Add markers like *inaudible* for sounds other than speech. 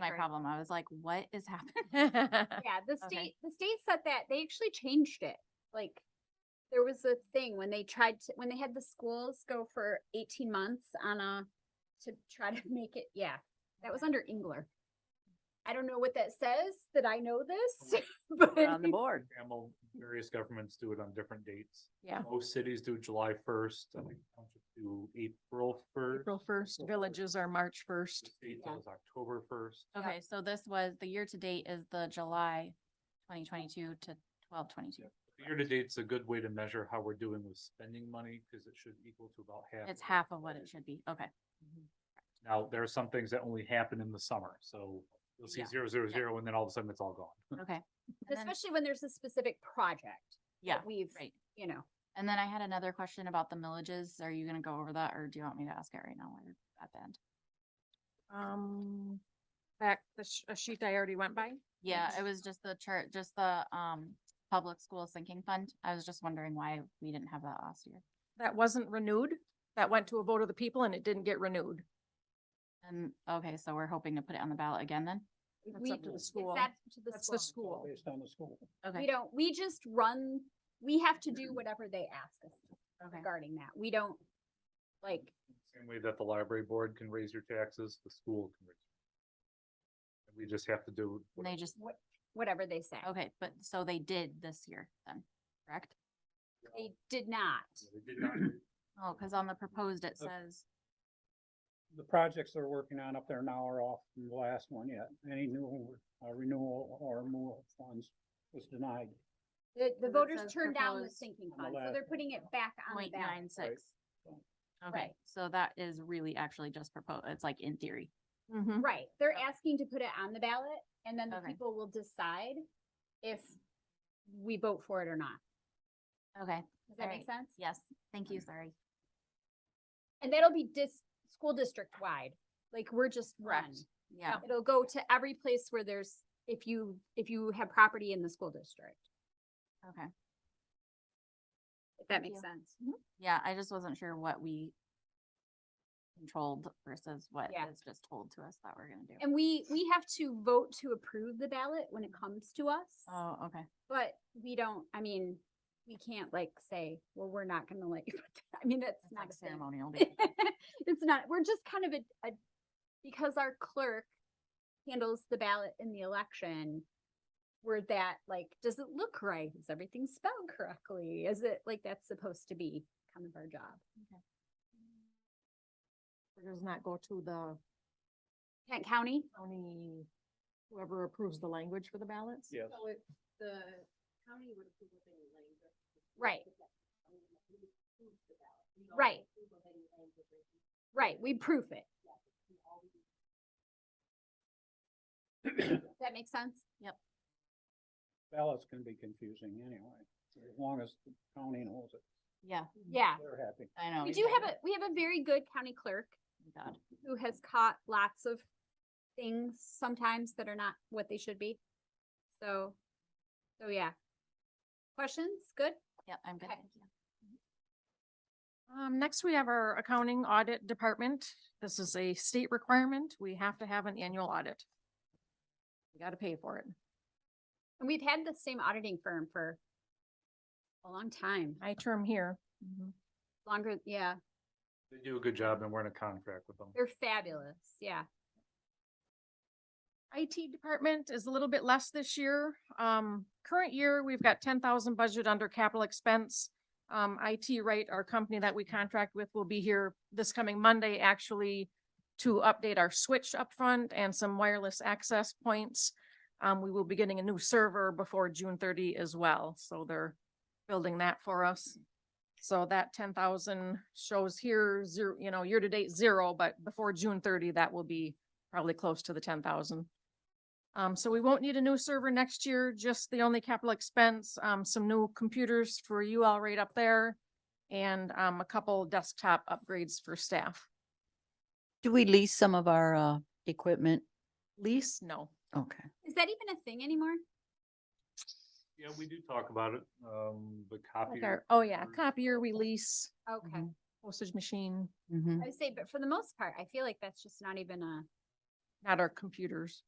my great. problem. I was like, what is *laughs* happening? Right. Yeah, the Okay. state, the state said that, they actually changed it, like, there was a thing when they tried to, when they had the schools go for eighteen months on a, to try to *laughs* make it, yeah, that was under Engler. I don't know what that says, that I know this, *laughs* but, We're on *laughs* the board. Camel, various governments do it on different dates. Yeah. Most cities do July first, I think townships do April first. April first, villages are March first. State Yeah. does October first. Okay, so this was, the year to date is the July twenty twenty-two to twelve twenty-two. Year to date's a good way to measure how we're doing with spending money, because it should equal to about half. It's of half of what it budget. should be. Okay. Now, there are some things that only happen in the summer, so you'll see Yeah. zero, zero, zero, and then all of a sudden it's all gone. Okay. And then- especially when there's a specific project. Yeah, that We've, right. you know, And then I had another question about the millages. Are you gonna go over that or do you want me to ask it right now or at the end? Um, back, the sh- a sheet I already went by. Yeah, it was just the chart, just the, um, public school sinking fund. I was just wondering why we didn't have that last year. That wasn't renewed. That went to a vote of the people and it didn't get renewed. And, okay, so we're hoping to put it on the ballot again then? That's we, up to the it's school. up to the That's the school. school. on the school. We Okay, don't, we just run, we have to do whatever they ask us to okay. regarding that. We don't, like, Same way that the library board can raise your taxes, the school can raise. your- We just have to do. And what- they just, what, whatever they say. okay, but so they did this year then, correct? They did not. They did not Oh, cause on the proposed it Oh, Okay. says, The projects they're working on up there now are off from the last one yet. Any new uh, renewal or move funds was denied. The, the it voters says turned down the proposed sinking on the fund, so last they're putting it back on the point ballot. nine six. Okay, Right. so that is really actually just proposed, it's like in theory. Mhm. Right, they're Mm-hmm. Okay. asking to put it on the ballot and then the Okay. people will decide if we vote for it or not. Okay, Does that Right. make sense? yes, thank you, sorry. And that'll be dis, school district wide, like we're just one. Yeah, It'll go to every place where there's, if you, if you have property in the school district, okay. if that Thank you. makes sense. Yeah, I just wasn't sure what we controlled versus what Yeah. is just told to us that we're gonna do. And we, we have to vote to approve the ballot when it comes to us. Oh, okay. But we don't, I mean, we can't like say, well, we're not gonna let you, put that." I mean, that's It's not like a thing. ceremonial. *laughs* day. *laughs* It's not, we're just kind of a, a, because our clerk handles the ballot in the election. We're that, like, does it look right? Is everything spelled correctly? Is it like that's supposed to be kind of our job? It Does not go to the Kent County? county, whoever approves the language for the ballots. Yes. So if the county would approve of any language. Right. Right. Right. Right, we proof it. Does That makes sense? Ballots can be confusing anyway, as long as the county knows it. Yeah, Yeah. They're happy. I know. We do have a, we have a very good county clerk God. who has caught lots of things sometimes that are not what they should be. So, so yeah. Questions? Good? Yep, I'm good, Okay. thank you. Um, next we have our accounting audit department. This is a state requirement. We have to have an annual audit. We gotta pay for it. And we've had the same auditing firm for a long time, My term here. Mm-hmm. longer, yeah. They do a good job and we're in a contract with them. They're fabulous, yeah. IT department is a little bit less this year. Um, current year, we've got ten thousand budget under capital expense. Um, IT Right, our company that we contract with, will be here this coming Monday, actually, to update our switch up front and some wireless access points. Um, we will be getting a new server before June thirty as well, so they're building that for us. So that ten thousand shows here, zero, you know, year-to-date zero, but before June thirty, that will be probably close to the ten thousand. Um, so we won't need a new server next year, just the only capital expense, um, some new computers for you all right up there. And, um, a couple desktop upgrades for staff. Do we lease some of our uh equipment? Lease, no. Okay. Is that even a thing anymore? Yeah, we do talk about it, um, the Like our, copier. oh yeah, or- copier, we lease, Okay, Mhm. postage machine, Mm-hmm. I would say, but for the most part, I feel like that's just not even a, not our computers.